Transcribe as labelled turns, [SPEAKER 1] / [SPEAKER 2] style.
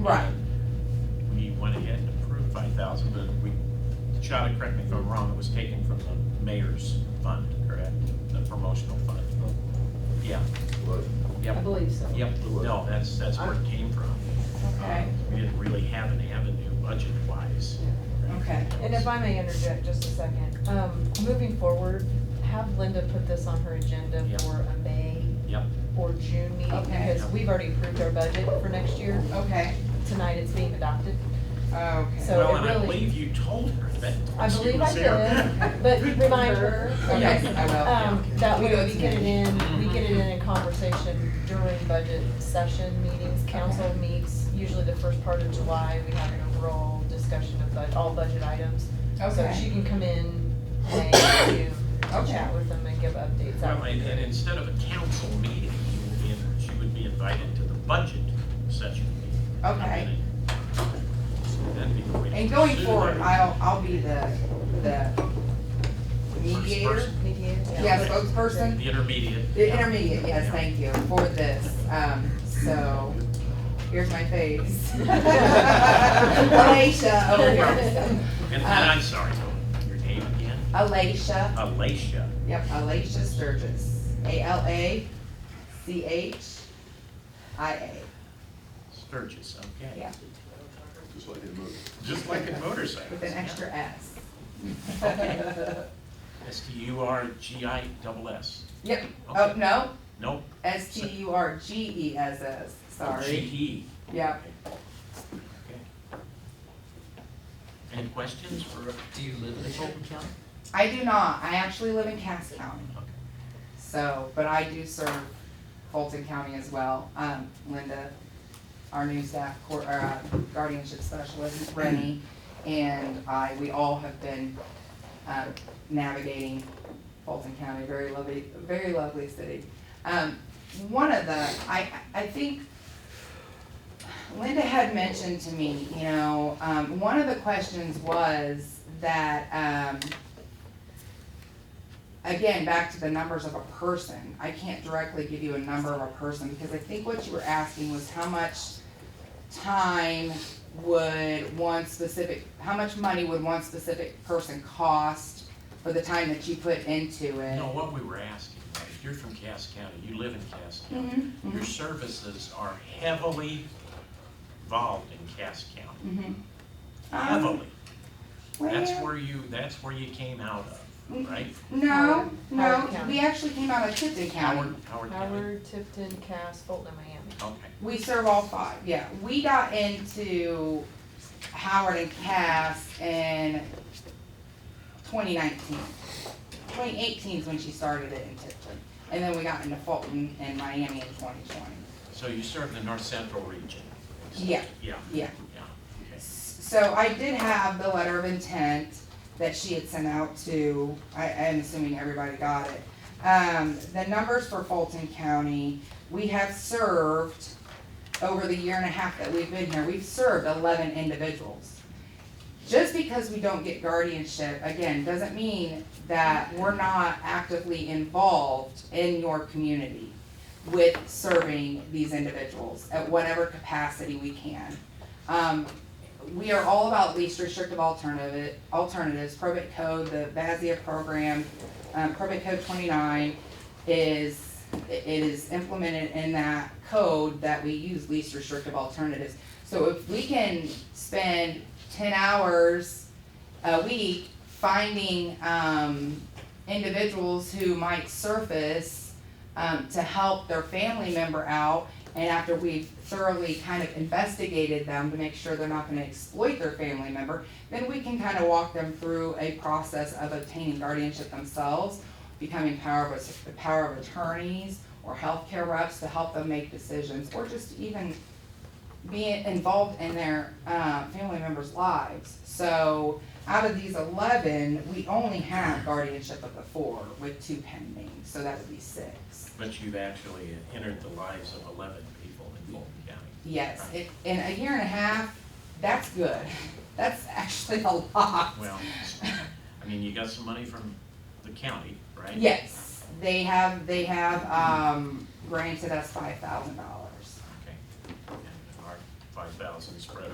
[SPEAKER 1] Right.
[SPEAKER 2] We went ahead and approved five thousand, but we, Shada, correct me if I'm wrong, it was taken from the mayor's fund, correct? The promotional fund. Yeah,
[SPEAKER 3] But
[SPEAKER 2] yep.
[SPEAKER 4] I believe so.
[SPEAKER 2] Yep, no, that's, that's where it came from. Um,
[SPEAKER 1] Okay.
[SPEAKER 2] We didn't really have an avenue budget wise.
[SPEAKER 1] Okay.
[SPEAKER 5] And if I may interject just a second, um, moving forward, have Linda put this on her agenda
[SPEAKER 2] Yeah.
[SPEAKER 5] for a May
[SPEAKER 2] Yep,
[SPEAKER 5] or June meeting,
[SPEAKER 1] Okay.
[SPEAKER 5] because we've already approved our budget for next year.
[SPEAKER 1] Okay,
[SPEAKER 5] Tonight it's being adopted.
[SPEAKER 1] okay.
[SPEAKER 5] So
[SPEAKER 2] well,
[SPEAKER 5] it
[SPEAKER 2] and I
[SPEAKER 5] really-
[SPEAKER 2] believe you told her that.
[SPEAKER 5] I
[SPEAKER 2] she
[SPEAKER 5] believe I
[SPEAKER 2] was there.
[SPEAKER 5] did, but remind her,
[SPEAKER 1] Okay, I will.
[SPEAKER 5] um, that
[SPEAKER 1] We
[SPEAKER 5] way
[SPEAKER 1] go
[SPEAKER 5] we
[SPEAKER 1] to
[SPEAKER 5] get it
[SPEAKER 1] meeting.
[SPEAKER 5] in, we get it in in conversation during budget session meetings. Council
[SPEAKER 1] Okay.
[SPEAKER 5] meets usually the first part of July, we have an overall discussion of bud, all budget items. Oh, So she
[SPEAKER 1] Okay.
[SPEAKER 5] can come in, May, June, to
[SPEAKER 1] Okay.
[SPEAKER 5] chat with them and give updates. That
[SPEAKER 2] Well,
[SPEAKER 5] would be
[SPEAKER 2] and, and
[SPEAKER 5] great.
[SPEAKER 2] instead of a council meeting, you would be, in- she would be invited to the budget session meeting.
[SPEAKER 1] Okay.
[SPEAKER 2] That'd be the way to
[SPEAKER 1] And going
[SPEAKER 2] pursue
[SPEAKER 1] forward,
[SPEAKER 2] that.
[SPEAKER 1] I'll, I'll be the, the mediator,
[SPEAKER 2] person.
[SPEAKER 5] Mediator,
[SPEAKER 1] yeah, spokesperson,
[SPEAKER 2] The intermediate.
[SPEAKER 1] the intermediate, yes, thank you, for this, um, so, here's my face. oh, Alicia over here.
[SPEAKER 2] And, and
[SPEAKER 1] Uh,
[SPEAKER 2] I'm sorry, your name again?
[SPEAKER 1] Alicia,
[SPEAKER 2] Oh. Alacia.
[SPEAKER 1] yep, Alicia Sturgis, A L A C H I A.
[SPEAKER 2] Sturgis, okay.
[SPEAKER 1] Yeah.
[SPEAKER 3] just like it moves.
[SPEAKER 2] Just like a motorcycle.
[SPEAKER 1] With an extra S.
[SPEAKER 2] S T U R G I double S.
[SPEAKER 1] Yep, oh,
[SPEAKER 2] Okay.
[SPEAKER 1] no,
[SPEAKER 2] Nope.
[SPEAKER 1] S T U R G E S S,
[SPEAKER 2] G
[SPEAKER 1] sorry.
[SPEAKER 2] E.
[SPEAKER 1] Yep.
[SPEAKER 2] Okay. Any questions for? Do you live in Fulton County?
[SPEAKER 1] I do not, I actually live in Cass County.
[SPEAKER 2] Okay.
[SPEAKER 1] So, but I do serve Fulton County as well. Um, Linda, our new staff, cour- or, uh, guardianship specialist, Rennie, and I, we all have been, uh, navigating Fulton County, very lovely, very lovely city. Um, one of the, I, I think Linda had mentioned to me, you know, um, one of the questions was that, um, again, back to the numbers of a person, I can't directly give you a number of a person, because I think what you were asking was how much time would one specific, how much money would one specific person cost for the time that you put into it?
[SPEAKER 2] No, what we were asking, was, you're from Cass County, you live in Cass County.
[SPEAKER 1] Mhm,
[SPEAKER 2] Your services are heavily involved in Cass County,
[SPEAKER 1] mhm. Um,
[SPEAKER 2] heavily. That's
[SPEAKER 1] well,
[SPEAKER 2] where you, that's where you came out of,
[SPEAKER 1] Mm.
[SPEAKER 2] right?
[SPEAKER 1] No, no,
[SPEAKER 5] Howard County.
[SPEAKER 1] we actually came out of Tipton
[SPEAKER 2] Howard,
[SPEAKER 1] County.
[SPEAKER 2] Howard County,
[SPEAKER 5] Howard, Tifton, Cass, Fulton, and Miami.
[SPEAKER 2] okay.
[SPEAKER 1] We serve all five, yeah. We got into Howard and Cass in twenty nineteen. Twenty eighteen is when she started it in Tipton. And then we got into Fulton and Miami in twenty twenty.
[SPEAKER 2] So you serve the north central region?
[SPEAKER 1] Yeah.
[SPEAKER 2] Yeah.
[SPEAKER 1] Yeah.
[SPEAKER 2] Yeah, okay.
[SPEAKER 1] So I did have the letter of intent that she had sent out to, I, I'm assuming everybody got it. Um, the numbers for Fulton County, we have served, over the year and a half that we've been here, we've served eleven individuals. Just because we don't get guardianship, again, doesn't mean that we're not actively involved in your community with serving these individuals at whatever capacity we can. Um, we are all about least restrictive alternative, alternatives, probate code, the VASIA program, um, probate code twenty-nine is, it is implemented in that code that we use least restrictive alternatives. So if we can spend ten hours a week finding, um, individuals who might surface, um, to help their family member out, and after we've thoroughly kind of investigated them to make sure they're not gonna exploit their family member, then we can kind of walk them through a process of obtaining guardianship themselves, becoming power of, the power of attorneys or healthcare reps to help them make decisions, or just even being involved in their, uh, family members' lives. So out of these eleven, we only have guardianship of the four with two pending, so that would be six.
[SPEAKER 2] But you've actually entered the lives of eleven people in Fulton County.
[SPEAKER 1] Yes, it, in a year and a half, that's good. That's actually a lot.
[SPEAKER 2] Well, I mean, you got some money from the county, right?
[SPEAKER 1] Yes, they have, they have, um, granted us five thousand dollars.
[SPEAKER 2] Okay. And our five thousand spread